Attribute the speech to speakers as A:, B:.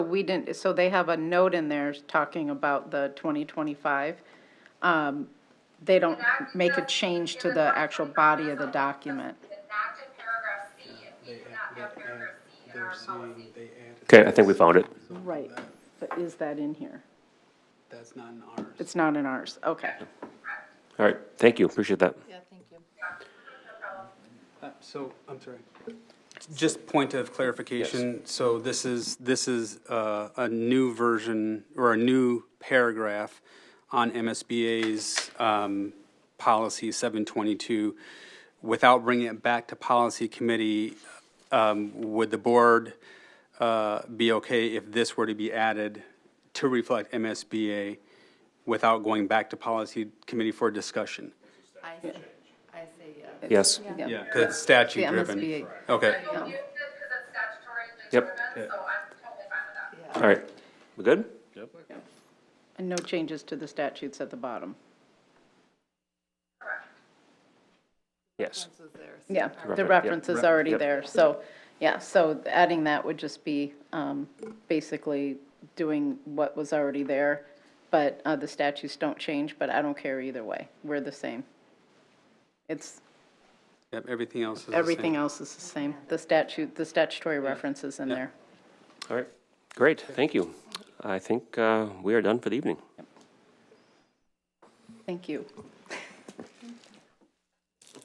A: We didn't, so they have a note in there talking about the 2025. Um, They don't make a change to the actual body of the document.
B: It's not in paragraph C, and we do not have paragraph C in our
C: They're
B: policy.
C: saying they added.
D: Okay, I think we found it.
C: something
A: Right,
C: that-
A: but is that in here?
C: That's not in ours.
A: It's not in ours, okay.
D: All right, thank you, appreciate that.
E: Yeah, thank you.
C: Uh, So, I'm sorry. Just point of clarification, so this is, this is uh, a new version or a new paragraph on MSBA's um, policy 722. Without bringing it back to policy committee, um, would the board uh, be okay if this were to be added to reflect MSBA without going back to policy committee for discussion?
E: I, say- I say yes.
D: Yes,
C: Yeah, because it's statute
A: The
C: driven.
A: MSBA.
C: Okay.
B: You'll use this because it's statutory
D: Yep.
B: determined, so I'm totally fine with that.
D: all right, we good?
A: And no changes to the statutes at the bottom.
D: Yes.
E: This was theirs.
A: Yeah, the
D: Refer- yep,
A: reference is
D: refer-
A: already
D: yep.
A: there, so, yeah, so adding that would just be um, basically doing what was already there, but uh, the statutes don't change, but I don't care either way, we're the same. It's,
C: Yep, everything else is the same.
A: everything else is the same, the statute, the statutory reference is in there.
D: All right, great, thank you. I think uh, we are done for the evening.
A: Thank you.